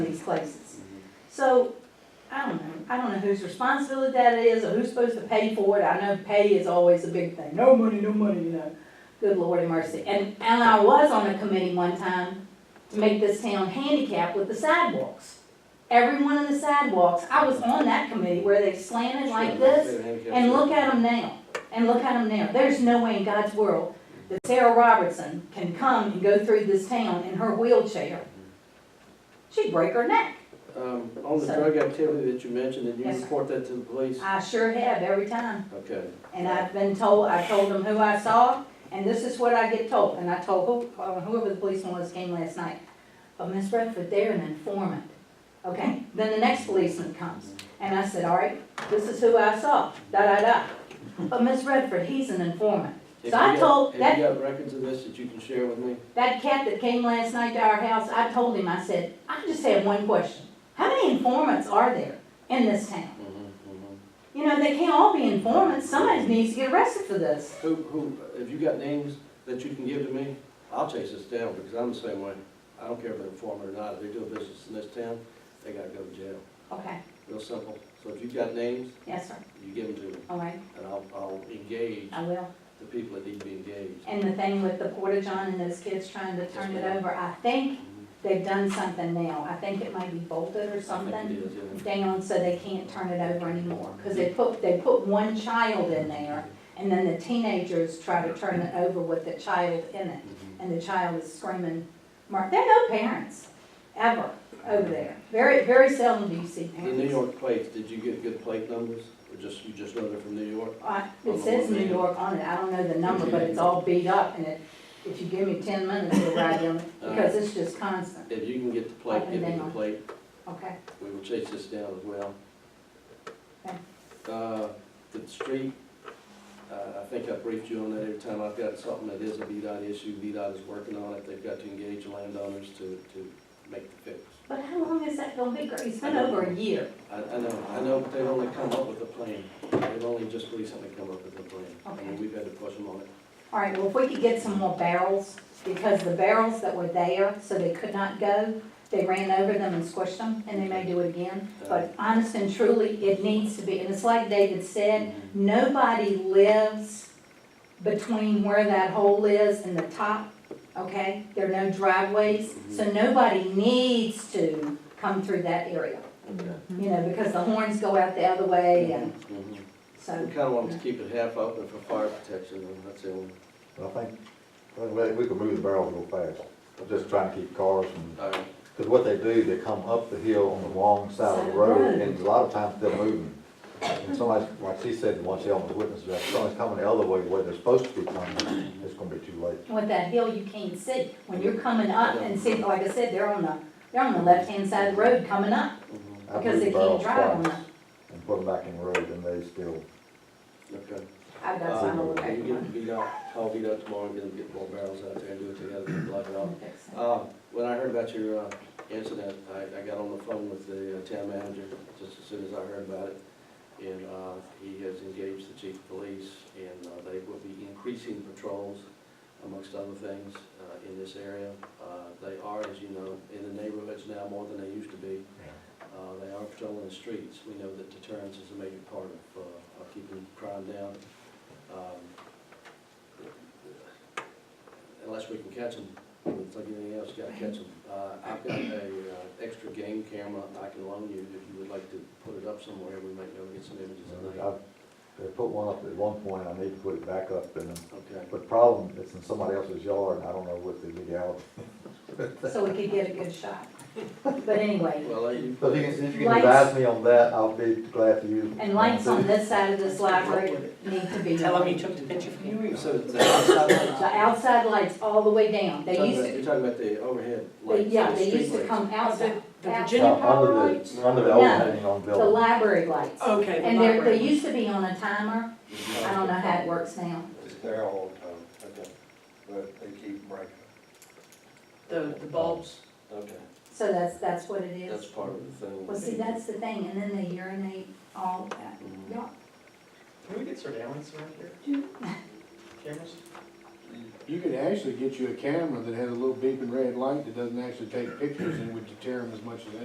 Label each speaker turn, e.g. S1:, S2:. S1: places. So, I don't know, I don't know whose responsibility that is, or who's supposed to pay for it, I know pay is always a big thing, no money, no money, you know. Good lord have mercy, and, and I was on a committee one time to make this town handicapped with the sidewalks. Everyone on the sidewalks, I was on that committee where they slanted like this, and look at them now, and look at them now. There's no way in God's world that Sarah Robertson can come and go through this town in her wheelchair. She'd break her neck.
S2: Um, on the
S1: So-
S2: drug activity that you mentioned, did you
S1: Yes, sir.
S2: report that to the police?
S1: I sure have every time.
S2: Okay.
S1: And I've been told, I told them who I saw, and this is what I get told. And I told who- uh, whoever the policeman was came last night. But Miss Redford, they're an informant. Okay, then the next policeman comes. And I said, all right, this is who I saw, da-da-da. But Miss Redford, he's an informant.
S2: If
S1: So I
S2: you got-
S1: told that-
S2: Have you got records of this that you can share with me?
S1: That cat that came last night to our house, I told him, I said, I just have one question. How many informants are there in this town? You know, they can't all be informants. Somebody needs to get arrested for this.
S2: Who, who, have you got names that you can give to me? I'll chase this down, because I'm the same way. I don't care if they're informer or not, if they do a business in this town, they gotta go to jail.
S1: Okay,
S2: Real simple. So if you've got names,
S1: yes, sir.
S2: you give them to me,
S1: All right,
S2: and I'll, I'll engage
S1: I will.
S2: the people that need to be engaged.
S1: And the thing with the Porta John and those kids trying to turn it over, I think
S2: Mhm.
S1: they've done something now. I think it might be bolted or
S2: I think
S1: something
S2: it is, yeah.
S1: down so they can't turn it over anymore. Because they put, they put one child in there and then the teenagers try to turn it over with the child in it.
S2: Mhm.
S1: and the child is screaming, Mark, there are no parents, ever, over there. Very, very seldom do you see
S2: The New
S1: parents.
S2: York plates, did you get good plate numbers, or just, you just know they're from New York?
S1: I- It says New York on it, I don't know the number, but it's all beat up, and it, if you give me ten minutes, it'll ride them,
S2: Uh-huh.
S1: because it's just constant,
S2: If you can get the plate, give me the plate,
S1: okay?
S2: we will chase this down as well.
S1: Okay.
S2: Uh, the street, uh, I think I briefed you on that every time, I've got something that is a VDOT issue, VDOT is working on it, they've got to engage landowners to, to make the fix.
S1: But how long is that gonna be, Gr- it's been over a year,
S2: I, I know, I know they've only come up with a plan, they've only just recently come up with a plan, I mean,
S1: Okay.
S2: we've had to push them on it.
S1: all right, well, if we could get some more barrels, because the barrels that were there, so they could not go, they ran over them and squished them, and they may do it again, but honest and truly, it needs to be, and it's like David said,
S2: Mhm.
S1: Nobody lives between where that hole is and the top, okay? There are no driveways, so nobody needs to come through that area,
S2: Okay.
S1: you know, because the horns go out the other way and
S2: Mhm. We
S1: so,
S2: kind of wanted to keep it half open for fire protection, and that's the only,
S3: I think, I think we- we could move the barrels real fast, I'm just trying to keep cars from,
S2: all right,
S3: because what they do, they come up the hill on the wrong side of the road, and a lot of times they're moving. And somebody, like she said, once the element witness, that somebody's coming the other way where they're supposed to be coming, it's gonna be too late.
S1: with that hill, you can't see. When you're coming up and see, like I said, they're on the, they're on the left-hand side of the road coming up
S2: Mhm.
S3: I
S1: because
S3: moved
S1: they
S3: the
S1: can't
S3: barrels
S1: drive on
S3: twice
S1: the,
S3: And put them back in the road, and they still,
S2: okay.
S1: I've got
S2: Um,
S1: some over
S2: Can you
S1: there.
S2: get beat up, call beat up tomorrow, and get them, get more barrels out there, and do it together, and block it off. Um, when I heard about your, uh, incident, I, I got on the phone with the uh, town manager, just as soon as I heard about it. And, uh, he has engaged the chief of police, and, uh, they will be increasing patrols amongst other things, uh, in this area. Uh, they are, as you know, in the neighborhoods now more than they used to be. Uh, they are patrolling the streets. We know that deterrence is a major part of, uh, of keeping crime down. Um, Unless we can catch them, it's like anything else, you gotta catch them. Uh, I've got a, uh, extra game camera I can loan you if you would like to put it up somewhere. We might be able to get some images
S3: you know,
S2: tonight.
S3: I, they put one up at one point, I need to put it back up, and,
S2: Okay.
S3: but problem, it's in somebody else's yard, and I don't know what the legality.
S1: So we could get a good shot. But anyway,
S2: Well, uh, you.
S3: But if you can, if you can
S1: Lights.
S3: advise me on that, I'll be glad to use.
S1: And lights on this side of this library need to be.
S4: Tell them you took the picture for you.
S2: So the outside
S1: The outside lights all the way down,
S2: lights,
S1: they used to,
S2: you're talking about the overhead
S1: they-
S2: lights.
S1: yeah,
S2: the
S1: they
S2: street
S1: used to
S2: lights.
S1: come outside,
S4: The
S1: out-
S4: Virginia power
S3: Under the-
S4: lights?
S3: Under the
S1: No.
S3: overhanging on
S1: the
S3: building.
S1: library lights.
S4: Okay. Oh, the
S1: And they're,
S4: library.
S1: they used to be on a timer, I don't know how it works now.
S5: It's there all the time, okay, but they keep breaking.
S4: The, the bulbs.
S2: Okay,
S1: So that's, that's what it
S2: that's
S1: is.
S2: part of the thing.
S1: Well, see, that's the thing, and then they urinate all that,
S2: Mhm.
S1: yeah.
S6: Can we get surveillance around here? Cameras?
S7: You could actually get you a camera that has a little beeping red light that doesn't actually take pictures and would deter them as much as anything.